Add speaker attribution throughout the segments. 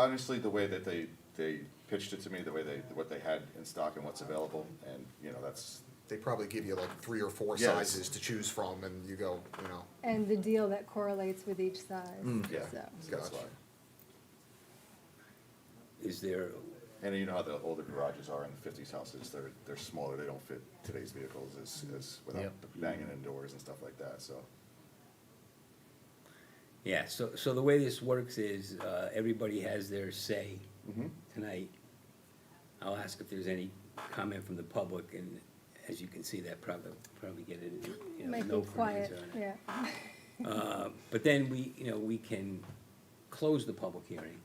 Speaker 1: Honestly, the way that they, they pitched it to me, the way they, what they had in stock and what's available, and, you know, that's,
Speaker 2: They probably give you like three or four
Speaker 1: Yes.
Speaker 2: sizes to choose from, and you go, you know,
Speaker 3: And the deal that correlates with each size,
Speaker 1: Mm, yeah,
Speaker 3: so.
Speaker 1: that's
Speaker 2: Gotcha.
Speaker 1: why.
Speaker 4: Is there,
Speaker 1: And you know how the older garages are in the fifties houses, they're, they're smaller, they don't fit today's vehicles as, as, without banging in doors and stuff like that, so.
Speaker 4: yeah, so, so the way this works is, uh, everybody has their say
Speaker 2: Mm-hmm.
Speaker 4: tonight. I'll ask if there's any comment from the public, and as you can see, that probably, probably get it, you know,
Speaker 3: Make
Speaker 4: no
Speaker 3: it
Speaker 4: comments
Speaker 3: quiet,
Speaker 4: on it.
Speaker 3: yeah.
Speaker 4: Uh, But then we, you know, we can close the public hearing,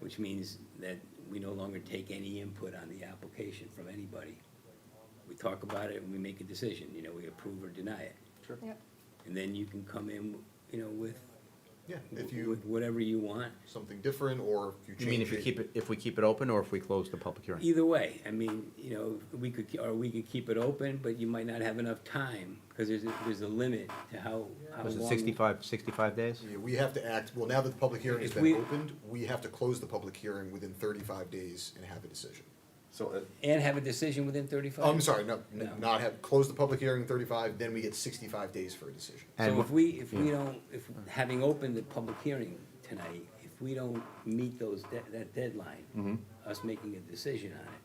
Speaker 4: which means that we no longer take any input on the application from anybody. We talk about it and we make a decision, you know, we approve or deny it.
Speaker 1: Sure.
Speaker 3: Yep.
Speaker 4: And then you can come in, you know, with,
Speaker 2: yeah, if you,
Speaker 4: with whatever you want.
Speaker 2: something different, or if you change
Speaker 5: You mean if you keep it, if we keep it open or if we close the public hearing?
Speaker 4: Either way, I mean, you know, we could, or we could keep it open, but you might not have enough time, because there's, a- there's a limit to how, how long.
Speaker 5: Was it 65 65 days?
Speaker 2: Yeah, we have to act, well, now that the public hearing has
Speaker 4: If
Speaker 2: been
Speaker 4: we-
Speaker 2: opened, we have to close the public hearing within thirty-five days and have a decision.
Speaker 1: So, uh,
Speaker 4: And have a decision within thirty-five?
Speaker 2: Oh, I'm sorry, no, n-
Speaker 4: No.
Speaker 2: not have, close the public hearing in thirty-five, then we get sixty-five days for a decision.
Speaker 5: And
Speaker 4: So if
Speaker 5: wha-
Speaker 4: we, if we don't, if, having opened the public hearing tonight, if we don't meet those, de- that deadline,
Speaker 5: Mm-hmm.
Speaker 4: us making a decision on it,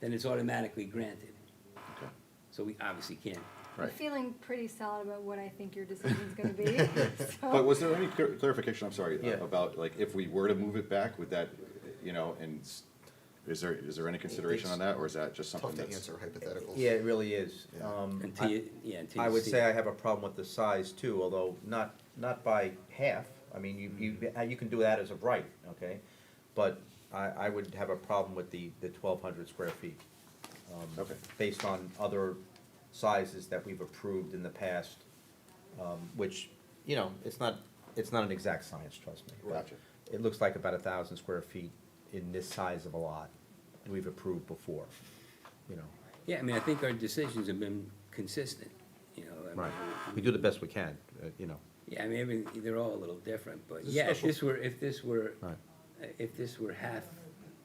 Speaker 4: then it's automatically granted. So we obviously can't.
Speaker 3: I'm
Speaker 5: Right.
Speaker 3: feeling pretty solid about what I think your decision's gonna be,
Speaker 1: but
Speaker 3: so.
Speaker 1: was there any clar- clarification, I'm sorry,
Speaker 5: Yeah.
Speaker 1: about, like, if we were to move it back, would that, you know, and s- is there, is there any consideration on that, or is that just something
Speaker 2: Tough
Speaker 1: that's?
Speaker 2: to answer hypotheticals.
Speaker 5: Yeah, it really is.
Speaker 2: Yeah.
Speaker 5: Um,
Speaker 4: Until
Speaker 5: I
Speaker 4: you, yeah, until you
Speaker 5: I would
Speaker 4: see
Speaker 5: say
Speaker 4: it.
Speaker 5: I have a problem with the size too, although not, not by half. I mean, you, you, uh, you can do that as a right, okay? But I, I would have a problem with the, the twelve hundred square feet. um,
Speaker 1: Okay.
Speaker 5: Based on other sizes that we've approved in the past, um, which, you know, it's not, it's not an exact science, trust me. but
Speaker 1: Gotcha.
Speaker 5: It looks like about a thousand square feet in this size of a lot we've approved before, you know?
Speaker 4: Yeah, I mean, I think our decisions have been consistent, you know. I mean,
Speaker 5: Right, we do the best we can, uh, you know,
Speaker 4: Yeah, I mean, every- they're all a little different, but
Speaker 2: It's a
Speaker 4: yeah, if
Speaker 2: special-
Speaker 4: this were, if this were,
Speaker 5: Right.
Speaker 4: if this were half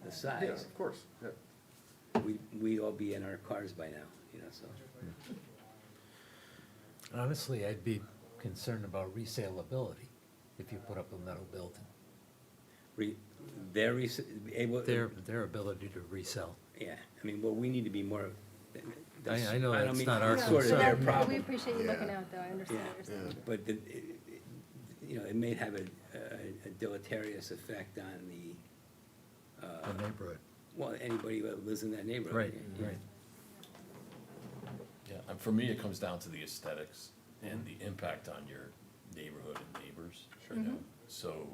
Speaker 4: the
Speaker 1: Yeah,
Speaker 4: size,
Speaker 1: of course, yeah.
Speaker 4: we, we'd all be in our cars by now, you know, so.
Speaker 6: Honestly, I'd be concerned about resaleability if you put up a metal building.
Speaker 4: Re, their, res- able,
Speaker 6: Their, their ability to resell.
Speaker 4: Yeah, I mean, well, we need to be more. that's-
Speaker 6: I know
Speaker 4: don't
Speaker 6: that's
Speaker 4: mean-
Speaker 6: not our
Speaker 4: it's sort of
Speaker 3: No, but
Speaker 4: their
Speaker 3: I- We
Speaker 4: problem,
Speaker 3: appreciate you looking
Speaker 2: Yeah.
Speaker 3: out, though, I understand
Speaker 4: yeah,
Speaker 3: what you're saying.
Speaker 4: but the, it- it- you know, it may have a, a- a deleterious effect on the,
Speaker 6: The neighborhood.
Speaker 4: well, anybody that lives in that neighborhood.
Speaker 6: Right,
Speaker 4: yeah.
Speaker 6: right.
Speaker 7: Yeah, and for me, it comes down to the aesthetics and the impact on your neighborhood and neighbors. Sure. So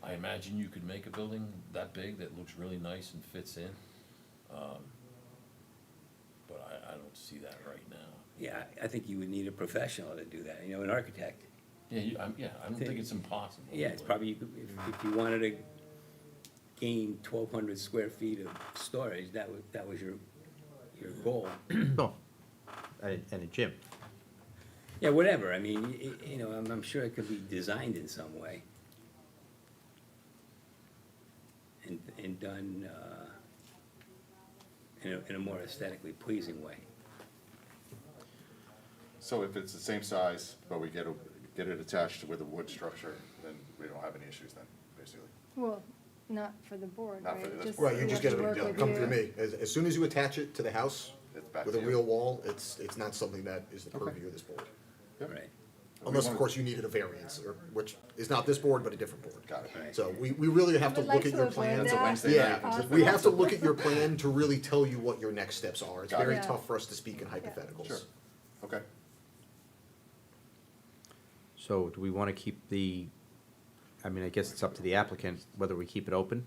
Speaker 7: I imagine you could make a building that big that looks really nice and fits in. um, But I, I don't see that right now.
Speaker 4: Yeah, I- I think you would need a professional to do that, you know, an architect.
Speaker 7: Yeah, you, I'm, yeah, I don't think it's impossible.
Speaker 4: Yeah, it's
Speaker 7: but-
Speaker 4: probably, you could- if, if you wanted to gain twelve hundred square feet of storage, that was, that was your, your goal.
Speaker 5: no, Oh, and, and a gym.
Speaker 4: Yeah, whatever, I mean, y- y- you know, I'm, I'm sure it could be designed in some way. And, and done, uh, in a, in a more aesthetically pleasing way.
Speaker 1: So if it's the same size, but we get, a- get it attached with a wood structure, then we don't have any issues then, basically.
Speaker 3: Well, not for the board,
Speaker 1: Not for
Speaker 3: right?
Speaker 1: this board.
Speaker 2: Right, you just
Speaker 3: have
Speaker 2: gotta
Speaker 3: to work with
Speaker 2: come
Speaker 3: you.
Speaker 2: through me. As, as soon as you attach it to the house
Speaker 1: It's back
Speaker 2: with
Speaker 1: to
Speaker 2: a
Speaker 1: you.
Speaker 2: real wall, it's, it's not something that is the purview of this board.
Speaker 1: Yep.
Speaker 4: Right.
Speaker 2: Unless, of
Speaker 1: wanna-
Speaker 2: course, you needed a variance, or, which is not this board, but a different board.
Speaker 1: Got it.
Speaker 2: So we, we really have
Speaker 3: I
Speaker 2: to
Speaker 3: would like
Speaker 2: look at
Speaker 3: to
Speaker 2: your
Speaker 3: avoid
Speaker 2: plan.
Speaker 1: That's a
Speaker 3: that.
Speaker 1: Wednesday night.
Speaker 2: Yeah, we have to
Speaker 3: Possible.
Speaker 2: look at your plan to really tell you what your next steps are. It's
Speaker 1: Got it.
Speaker 2: very
Speaker 3: Yeah.
Speaker 2: tough for us to speak in
Speaker 1: Sure,
Speaker 2: hypotheticals.
Speaker 1: okay.
Speaker 5: So do we wanna keep the, I mean, I guess it's up to the applicant whether we keep it open?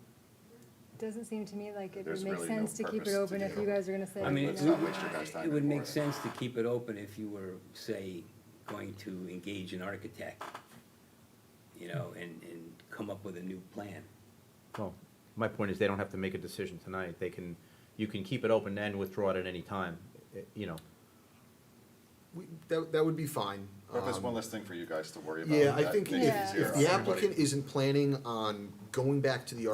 Speaker 3: Doesn't seem to me like it would
Speaker 1: There's
Speaker 3: make
Speaker 1: really no
Speaker 3: sense to keep
Speaker 1: purpose
Speaker 3: it
Speaker 1: to
Speaker 3: open if
Speaker 1: do.
Speaker 3: you guys are gonna say.
Speaker 4: I mean,
Speaker 3: you
Speaker 4: it
Speaker 1: Let's
Speaker 3: know,
Speaker 1: not waste your guys' time
Speaker 4: would, it would
Speaker 1: anymore.
Speaker 4: make sense to keep it open if you were, say, going to engage an architect, you know, and, and come up with a new plan.
Speaker 5: Well, my point is they don't have to make a decision tonight. They can, you can keep it open and withdraw it at any time, eh, you know.
Speaker 2: we, that, that would be fine.
Speaker 1: But there's
Speaker 2: Um,
Speaker 1: one less thing for you guys to worry about.
Speaker 2: Yeah, I
Speaker 1: that
Speaker 2: think
Speaker 1: makes it
Speaker 3: Yeah.
Speaker 2: if,
Speaker 1: easier
Speaker 2: if
Speaker 1: on
Speaker 2: the
Speaker 1: everybody.
Speaker 2: applicant isn't planning on going back to the